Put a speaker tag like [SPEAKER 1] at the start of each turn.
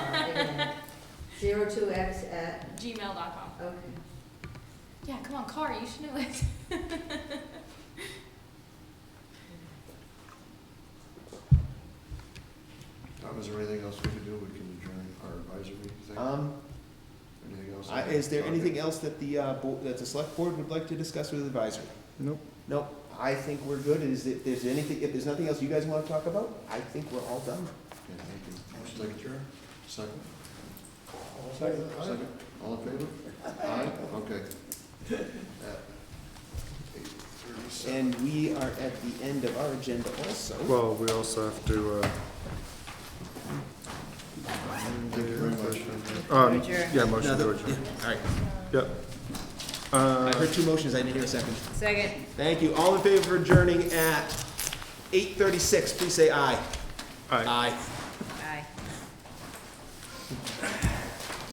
[SPEAKER 1] zero two X at,
[SPEAKER 2] gmail.com.
[SPEAKER 1] okay.
[SPEAKER 2] Yeah, come on, Car, you should know it.
[SPEAKER 3] Tom, is there anything else we can do? We can adjourn our advisory thing?
[SPEAKER 4] Um,
[SPEAKER 3] Anything else?
[SPEAKER 4] I- is there
[SPEAKER 3] Okay.
[SPEAKER 4] anything else that the, uh, bo- that the select board would like to discuss with advisory?
[SPEAKER 5] Nope.
[SPEAKER 4] Nope, I think we're good. Is if there's anything, if there's nothing else you guys wanna talk about, I think we're all done.
[SPEAKER 3] Okay, thank you. Motion to adjourn? Second?
[SPEAKER 5] Second.
[SPEAKER 3] Second? All in favor? Aye? Okay. At 8:37.
[SPEAKER 4] And we are at the end of our agenda also.
[SPEAKER 5] Well, we also have to, uh,
[SPEAKER 3] Thank you very much.
[SPEAKER 5] uh, um,
[SPEAKER 1] Adjourn.
[SPEAKER 5] yeah, motion to
[SPEAKER 4] Another-
[SPEAKER 5] adjourn.
[SPEAKER 4] All right,
[SPEAKER 5] Yep.
[SPEAKER 4] I
[SPEAKER 5] Uh,
[SPEAKER 4] heard two motions, I didn't hear a second.
[SPEAKER 1] Second.
[SPEAKER 4] Thank you. All in favor of adjourning at eight thirty-six, please say aye.
[SPEAKER 5] aye.
[SPEAKER 4] Aye.